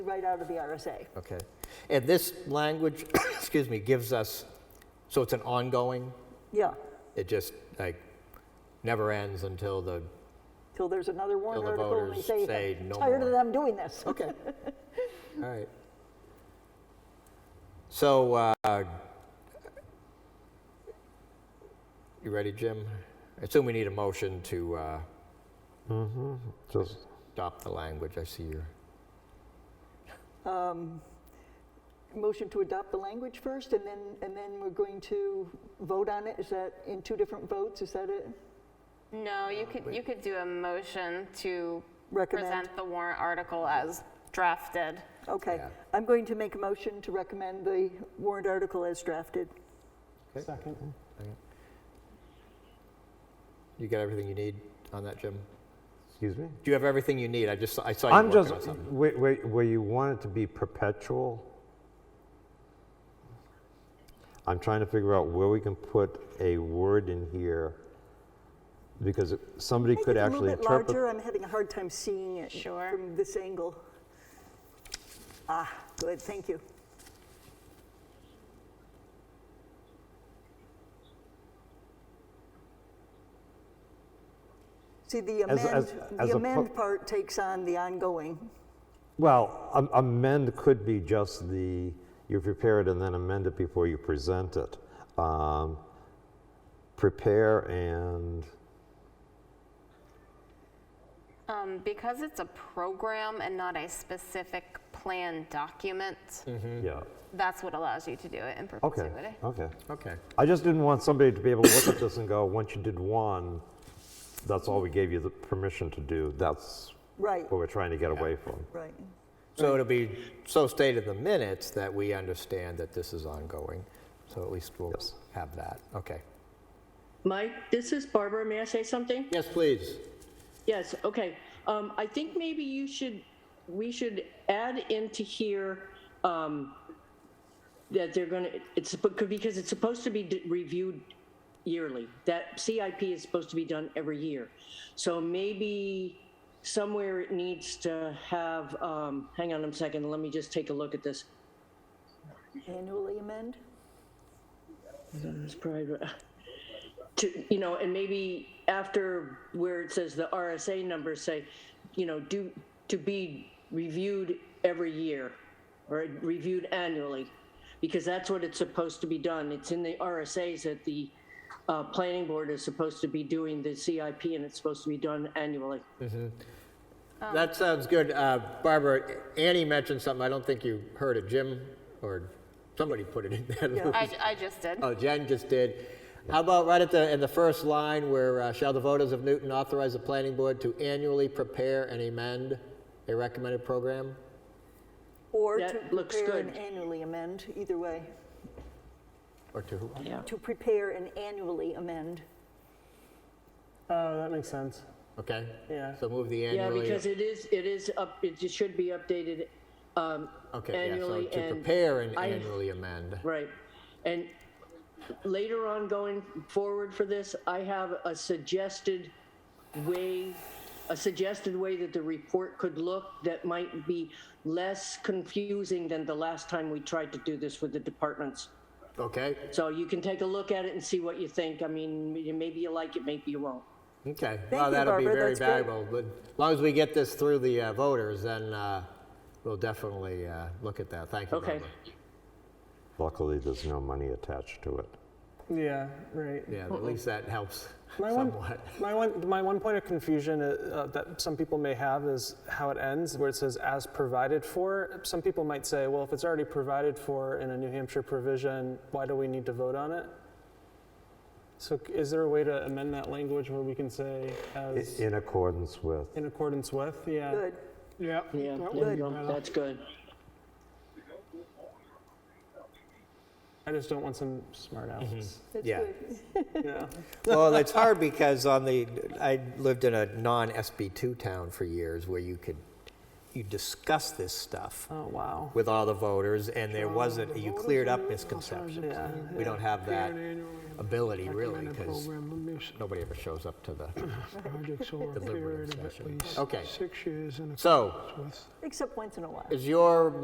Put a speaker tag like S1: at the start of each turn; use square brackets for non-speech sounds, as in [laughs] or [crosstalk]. S1: right out of the RSA.
S2: Okay. And this language, [coughs] excuse me, gives us, so it's an ongoing,
S1: Yeah,
S2: it just like never ends until the,
S1: till there's another warrant
S2: Till the
S1: article and they
S2: voters
S1: say,
S2: say
S1: "I'm
S2: no
S1: tired of
S2: more."
S1: them doing this.
S2: okay. All right. So, uh, you ready, Jim? I assume we need a motion to uh,
S3: Just,
S2: adopt the language. I see your,
S1: Um, Motion to adopt the language first, and then, and then we're going to vote on it? Is that in two different votes? Is that it?
S4: No, you could, you could do a motion to
S1: Recommend.
S4: present the warrant article as drafted.
S1: Okay.
S2: Yeah.
S1: I'm going to make a motion to recommend the warrant article as drafted.
S3: second.
S2: you got everything you need on that, Jim?
S3: Excuse me?
S2: Do you have everything you need? I just, I saw you
S3: I'm
S2: working
S3: just,
S2: on something.
S3: where, where, where you want it to be perpetual, I'm trying to figure out where we can put a word in here, because it- somebody
S1: Make
S3: could
S1: it a
S3: actually
S1: little bit
S3: interpret.
S1: larger, I'm having a hard time seeing it
S4: Sure.
S1: from this angle. Ah, good, thank you. See, the
S3: As-
S1: amend,
S3: as- as
S1: the
S3: oppo-
S1: amend part takes on the ongoing.
S3: Well, am- amend could be just the, you prepare it and then amend it before you present it. Um, Prepare and,
S4: Um, Because it's a program and not a specific plan document,
S2: Hmm.
S3: yeah,
S4: that's what allows you to do it in
S3: okay,
S4: perpetuity.
S3: okay.
S2: Okay.
S3: I just didn't want somebody to be able to look at this and go, once you did one, that's all we gave you the permission to do. That's
S1: Right,
S3: what we're trying to get away from.
S1: right.
S2: So it'll be so stated in the minutes that we understand that this is ongoing. So at least we'll
S3: Yes.
S2: have that. Okay.
S5: Mike, this is Barbara. May I say something?
S2: Yes, please.
S5: Yes, okay. Um, I think maybe you should, we should add into here, um, that they're gonna, it's, because it's supposed to be d- reviewed yearly. That CIP is supposed to be done every year. So maybe somewhere it needs to have, um, hang on a second, let me just take a look at this.
S1: Annually amend?
S5: It's probably- uh, to, you know, and maybe after where it says the RSA numbers say, you know, do, to be reviewed every year or reviewed annually, because that's what it's supposed to be done. It's in the RSAs that the, uh, planning board is supposed to be doing the CIP and it's supposed to be done annually. Um,
S2: That sounds good. Uh, Barbara, Annie mentioned something. I don't think you heard it. Jim or somebody put it in there.
S4: I, I just did.
S2: [laughs] Oh, Jen just did. How about right at the, in the first line where uh, shall the voters of Newton authorize the planning board to annually prepare and amend a recommended program?
S1: Or to
S5: That looks
S1: prepare and
S5: good.
S1: annually amend, either way.
S2: Or to who?
S5: Yeah.
S1: To prepare and annually amend.
S6: Oh, that makes sense.
S2: Okay?
S6: Yeah.
S2: So move the
S5: Yeah,
S2: annually.
S5: because it is, it is up, it just should be updated, um,
S2: Okay, yeah, so
S5: annually
S2: to
S5: and-
S2: prepare and
S5: I-
S2: annually amend.
S5: Right. And later on going forward for this, I have a suggested way, a suggested way that the report could look that might be less confusing than the last time we tried to do this with the departments.
S2: Okay?
S5: So you can take a look at it and see what you think. I mean, maybe you like it, maybe you won't.
S2: Okay,
S1: Thank
S2: well,
S1: you,
S2: that'll be
S1: Barbara.
S2: very
S1: That's great.
S2: valuable, but as long as we get this through the uh, voters, then uh, we'll definitely uh, look at that. Thank you,
S5: Okay.
S2: Barbara.
S3: Luckily, there's no money attached to it.
S6: Yeah, right.
S2: Yeah, at least that helps
S6: My one,
S2: somewhat.
S6: my one, my one point of confusion uh, uh, that some people may have is how it ends, where it says "as provided for." Some people might say, "Well, if it's already provided for in a New Hampshire provision, why do we need to vote on it?" So, c- is there a way to amend that language where we can say
S3: I-
S6: "as
S3: In accordance with,
S6: in accordance with"? Yeah.
S1: Good.
S6: Yeah.
S5: Yeah, there you go. That's good.
S6: I just don't want some smart alex.
S2: Yeah.
S6: [laughs] Yeah.
S2: Well, it's hard because on the, I lived in a non-SB2 town for years where you could you discussed this stuff
S6: Oh, wow.
S2: with all the voters, and there wasn't, you cleared up misconceptions.
S6: Yeah.
S2: We don't have that ability really,
S7: Recommended
S2: because
S7: program limits
S2: nobody ever shows up to the,
S7: projects over a
S2: deliberative
S7: period of at
S2: session.
S7: least
S2: Okay.
S7: six years and a
S2: so,
S7: with
S1: except once in a while.
S2: is your